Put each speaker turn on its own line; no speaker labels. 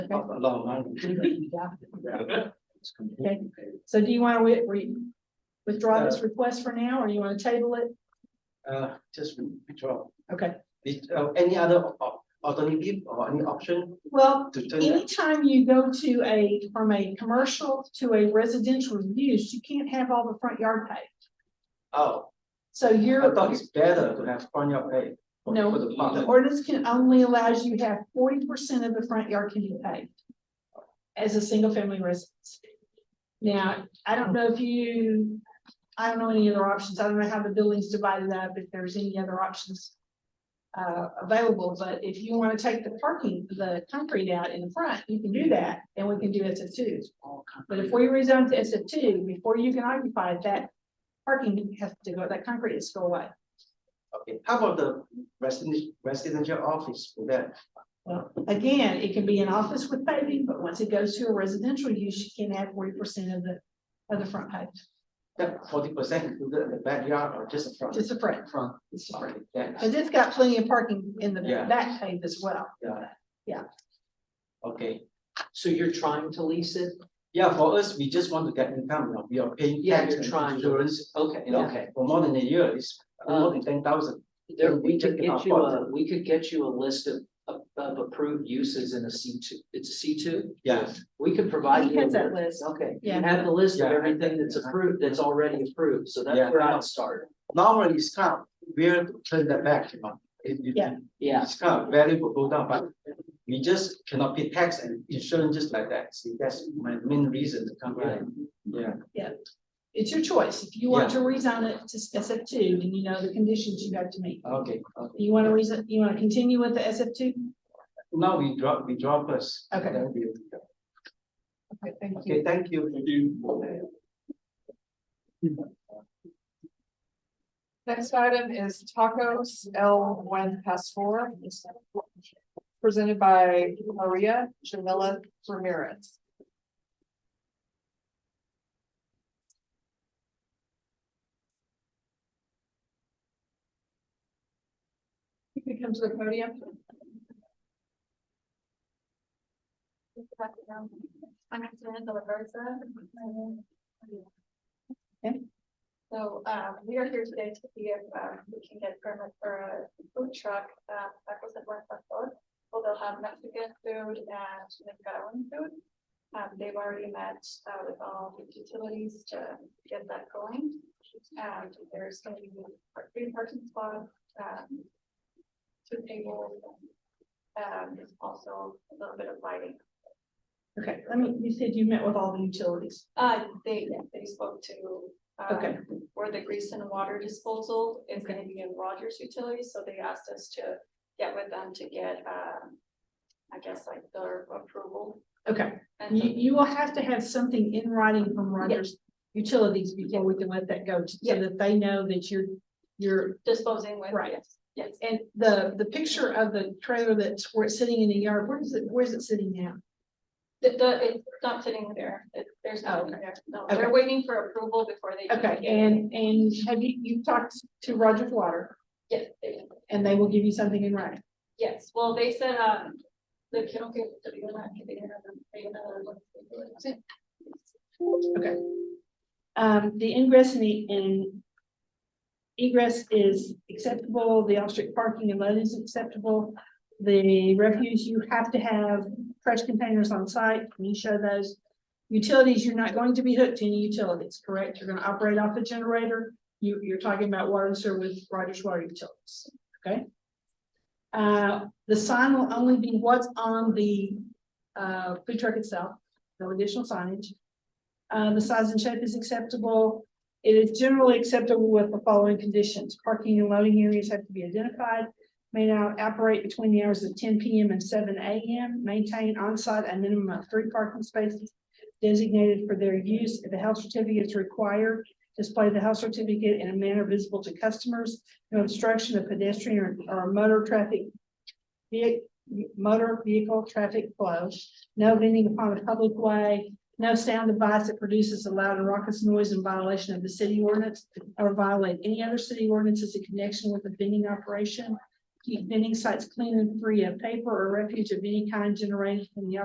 Okay, yeah.
Okay.
So do you want to wi- re- withdraw this request for now, or you want to table it?
Uh, just withdraw.
Okay,
Is, uh, any other al- alternative or any option
well,
to turn that?
anytime you go to a, from a commercial to a residential use, you can't have all the front yard paved.
Oh,
So
I
you're,
thought it's better to have front yard pay. for-
No.
For the
the
park.
ordinance can only allows you to have forty percent of the front yard can be paved as a single family residence. Now, I don't know if you, I don't know any other options. I don't know how the building's divided up, if there's any other options uh, available, but if you want to take the parking, the concrete out in the front, you can do that, and we can do S F two. But if we rezone to S F two, before you can occupy it, that parking has to go, that concrete has to go away.
Okay, how about the residential, residential office for that?
Well, again, it can be an office with paving, but once it goes to a residential use, you can add forty percent of the, of the front page,
That forty percent included in the backyard or just the front?
just the front,
Front.
just the front.
Okay, yeah,
Cause it's got plenty of parking in the
Yeah.
back pave as well.
yeah.
Yeah.
Okay,
So you're trying to lease it?
yeah, for us, we just want to get income, now. we are paying
Yeah,
tax
you're
and
trying to-
insurance,
Okay, Uh,
you know,
okay.
for more than a year, it's more than ten thousand.
There, we
Take
could
it off
get you a,
board.
we could get you a list of, of, of approved uses in a C two, it's a C two?
Yeah.
We could provide
He
you. a
has that
list.
list.
Okay.
Yeah.
You have the list of
Yeah.
everything that's approved, that's already approved, so that's
Yeah.
where I'd start.
Normally it's kind, we're turn that back, you know. It- it-
Yeah.
Yeah,
It's kind of value will go down, but we just cannot pay tax and insurance just like that. See, that's my main reason to come
Right.
here. Yeah,
It's your choice. If you want to rezone it to SF two, then you know the conditions you have to meet.
okay, okay.
You wanna reason, you wanna continue with the SF two?
Now we drop, we drop us.
Okay.
Then we-
Okay, thank
Okay, thank you. Thank you.
Next item is tacos L one past four. Presented by Maria Jamila Ramirez.
You can come to the podium.
I'm Samantha uh, Laversa.
Okay.
So, um, we are here today to see if, um, we can get permit for a food truck, uh, that was at West Buffalo. Well, they'll have Mexican food and Nicaraguan food. Um, they've already met, uh, with all the utilities to get that going. And there's going to be three parking spots, um, two tables. Um, there's also a little bit of lighting.
Okay, let me, you said you met with all the utilities.
Uh, they, they spoke to. um,
Okay.
Where the grease and water disposal is gonna be in Rogers Utilities, so they asked us to get with them to get, um. I guess like their approval.
Okay,
And
you,
so-
you will have to have something in writing from Rogers Utilities before we can let that go, so
Yeah.
that they know that you're, you're
Disposing with.
Right.
yes, Yes,
And the, the picture of the trailer that's where it's sitting in the yard, where is it, where's it sitting now?
the, the, it's not sitting there, it, there's
Oh,
nothing there, no, they're
Okay.
waiting for approval before they. can
Okay,
get it.
and, and have you, you've talked to Rogers Water
Yes, they,
and they will give you something in writing?
yes, well, they said, um, the, okay, they're not giving another, they're gonna-
Okay. Um, the ingress and the, and egress is acceptable, the off-street parking and load is acceptable. The refuse, you have to have fresh containers on site, can you show those? Utilities, you're not going to be hooked to any utilities, correct? You're gonna operate off the generator. You, you're talking about water and sewer with Rogers Water Utilities, okay? Uh, the sign will only be what's on the, uh, food truck itself, no additional signage. Uh, the size and shape is acceptable. It is generally acceptable with the following conditions. Parking and loading areas have to be identified. May not operate between the hours of ten PM and seven AM. Maintain on-site a minimum of three parking spaces designated for their use. If a health certificate is required, display the health certificate in a manner visible to customers. No obstruction of pedestrian or- or motor traffic vehi- motor vehicle traffic flow. No vending upon a public way. No sound device that produces a loud and raucous noise in violation of the city ordinance or violate any other city ordinances in connection with the vending operation. Keep vending sites clean and free of paper or refuge of any kind generated from the